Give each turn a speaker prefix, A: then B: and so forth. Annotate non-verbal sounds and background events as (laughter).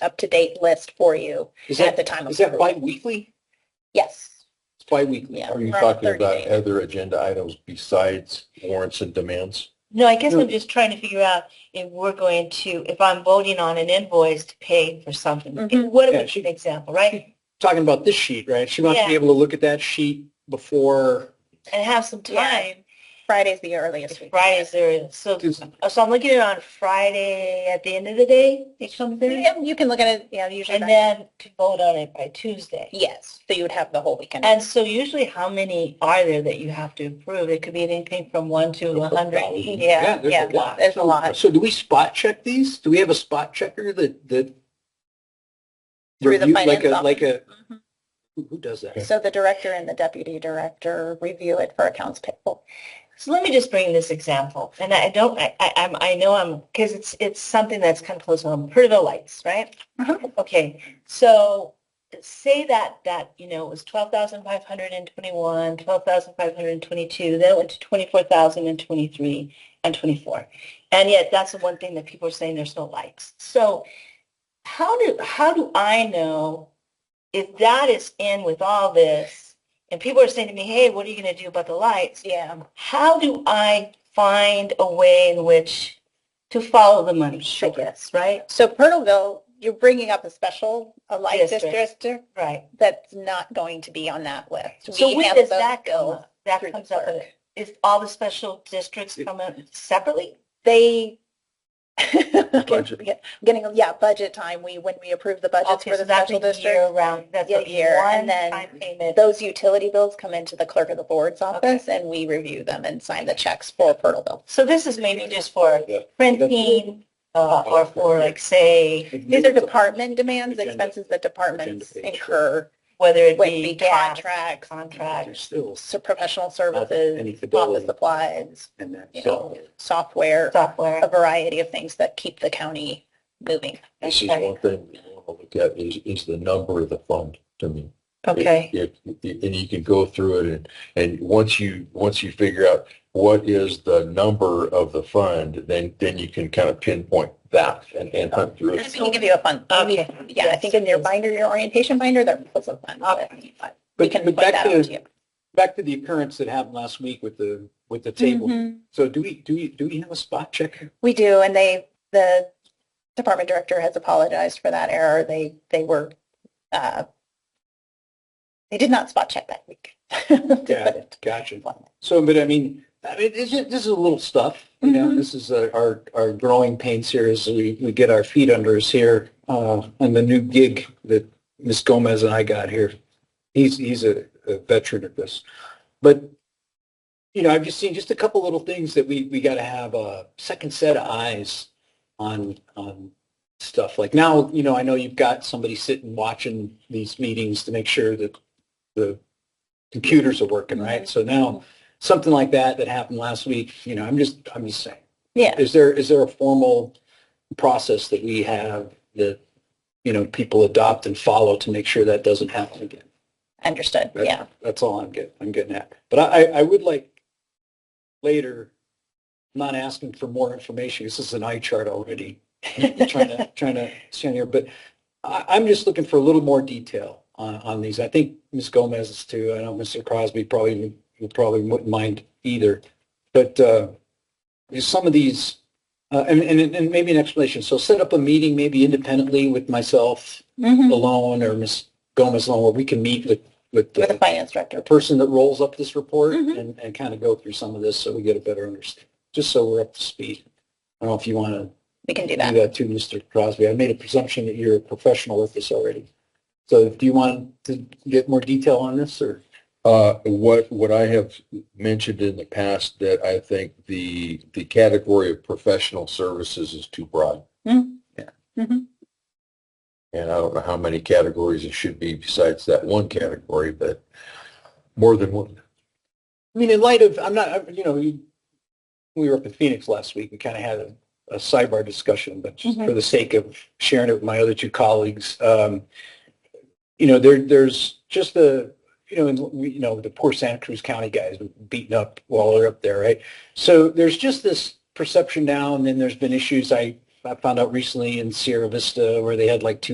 A: up-to-date list for you
B: Is
A: at
B: that,
A: the time of
B: is that
A: approval.
B: bi-weekly?
A: Yes,
B: It's bi-weekly.
A: yeah.
C: Are you
A: around
C: talking
A: 30
C: about
A: days.
C: other agenda items besides warrants and demands?
D: No, I guess
B: No.
D: I'm just trying to figure out if we're going to, if I'm voting on an invoice to pay for something,
A: Mhm.
D: what
B: Yeah,
D: an example, right?
B: Talking about this sheet, right? She wants to be
D: Yeah.
B: able to look at that sheet before,
D: And have some time.
A: Friday's the earliest we.
D: If Fridays there, so, oh,
B: It's-
D: so I'm looking at it on Friday at the end of the day, it comes in,
A: Yeah, You can look at it, yeah, usually,
D: and
A: by-
D: then to vote on it by Tuesday.
A: yes, so you would have the whole weekend.
D: And so usually how many are there that you have to approve? It could be anything from one to a hundred.
B: yeah,
A: Yeah,
B: there's
A: yeah,
B: a lot.
A: there's a lot.
B: So do we spot check these? Do we have a spot checker that, that?
A: Through the
B: review- like
A: finance
B: a Like a,
D: Mm-hmm.
A: Mhm.
B: who who does that?
A: So the director and the deputy director review it for accounts payable.
D: So let me just bring this example, and I don't, I, I, I'm, I know I'm, because it's, it's something that's kind of close home. Percival Lights, right?
A: Mhm.
D: Okay, so say that that you know it was twelve thousand five hundred and twenty-one, twelve thousand five hundred and twenty-two, then it went to twenty-four thousand and twenty-three and twenty-four, and yet that's the one thing that people are saying there's no lights. So how do how do I know if that is in with all this? And people are saying to me, "Hey, what are you going to do about the lights?"
A: Yeah,
D: how do I find a way in which to follow the money? I
A: Sure.
D: guess, right?
A: so Pernalville, you're bringing up a special, a light
D: District.
A: district
D: Right.
A: that's not going to be on that list.
D: So
A: We
D: when
A: have
D: does
A: those
D: that
A: go
D: go? up? That
A: through the
D: comes up.
A: clerk.
D: Is all the special districts
B: It-
D: come up separately?
A: They.
C: Budget.
A: Yeah, (laughs) Getting, yeah, budget time, we, when we approve the budgets
D: Okay,
A: for
D: so
A: the
D: that's
A: special
D: a year
A: district,
D: round, that's
A: Yeah,
D: a
A: year, and
D: one
A: then-
D: time payment.
A: those utility bills come into the clerk of the board's office and we review them and sign the checks for Pernalville.
D: So this is maybe just for
C: Yeah.
D: printing uh, or for like, say,
A: These are department demands,
B: Agenda.
A: expenses that departments
B: Agenda page.
A: incur,
D: whether it
A: would
D: be
A: be
D: gas,
A: contracts,
D: contract.
B: Still,
A: so professional
B: uh, Any
A: services,
B: fidelity.
A: office supplies,
B: and that,
A: you
B: so.
A: know, software,
D: software.
A: a variety of things that keep the county moving.
C: This is
D: Okay.
C: one thing we want to look at is, is the number of the fund to me.
D: Okay.
C: If, if- and you can go through it and, and once you, once you figure out what is the number of the fund, then, then you can kind of pinpoint that and, and hunt through
A: I
C: it.
A: can give you a fun,
D: Okay.
A: yeah, I think in your binder, your orientation binder, there was a fun.
D: Okay.
A: but We
B: But
A: can
B: but
A: point
B: back
A: that out to
B: to,
A: you.
B: back to the occurrence that happened last week with the, with the table.
A: Mhm.
B: So do we, do we, do we have a spot checker?
A: We do, and they, the department director has apologized for that error. They, they were, uh, they did not spot check that week.
B: Yeah.
A: To
B: Gotcha.
A: put it
B: So, but I mean, I mean, it's just, this is a little stuff, you know,
A: Mhm.
B: this is uh, our, our growing pains here as we, we get our feet under us here, uh, and the new gig that Ms. Gomez and I got here. He's, he's a, a veteran of this, but, you know, I've just seen just a couple little things that we, we gotta have a second set of eyes on, on stuff. Like now, you know, I know you've got somebody sitting watching these meetings to make sure that the computers are working, right? So now something like that that happened last week, you know, I'm just, I'm just saying.
A: Yeah.
B: Is there, is there a formal process that we have that, you know, people adopt and follow to make sure that doesn't happen again?
A: Understood,
B: Right.
A: yeah.
B: That's all I'm getting, I'm getting at. But I, I would like later, I'm not asking for more information. This is an eye chart already. (laughs) I'm trying to, trying to stand here, but I, I'm just looking for a little more detail on, on these. I think Ms. Gomez is too. I know Mr. Crosby probably, you probably wouldn't mind either. But, uh, there's some of these, uh, and, and, and maybe an explanation. So set up a meeting maybe independently with myself
A: Mhm.
B: alone or Ms. Gomez alone where we can meet with, with
A: With the
B: the
A: finance director.
B: a person that rolls up this report
A: Mhm.
B: and, and kind of go through some of this so we get a better understanding, just so we're up to speed. I don't know if you want to
A: We can do
B: do
A: that.
B: that too, Mr. Crosby. I made a presumption that you're a professional with this already. So do you want to get more detail on this or?
C: Uh, what, what I have mentioned in the past that I think the, the category of professional services is too broad.
A: Mm.
B: Yeah.
A: Mhm.
C: And I don't know how many categories it should be besides that one category, but more than one.
B: I mean, in light of, I'm not, I- you know, you- we were up in Phoenix last week and kind of had a, a sidebar discussion, but just
A: Mhm.
B: for the sake of sharing it with my other two colleagues, um, you know, there, there's just the, you know, and we, you know, the poor Santa Cruz County guys were beaten up while they're up there, right? So there's just this perception now, and then there's been issues I, I found out recently in Sierra Vista where they had like two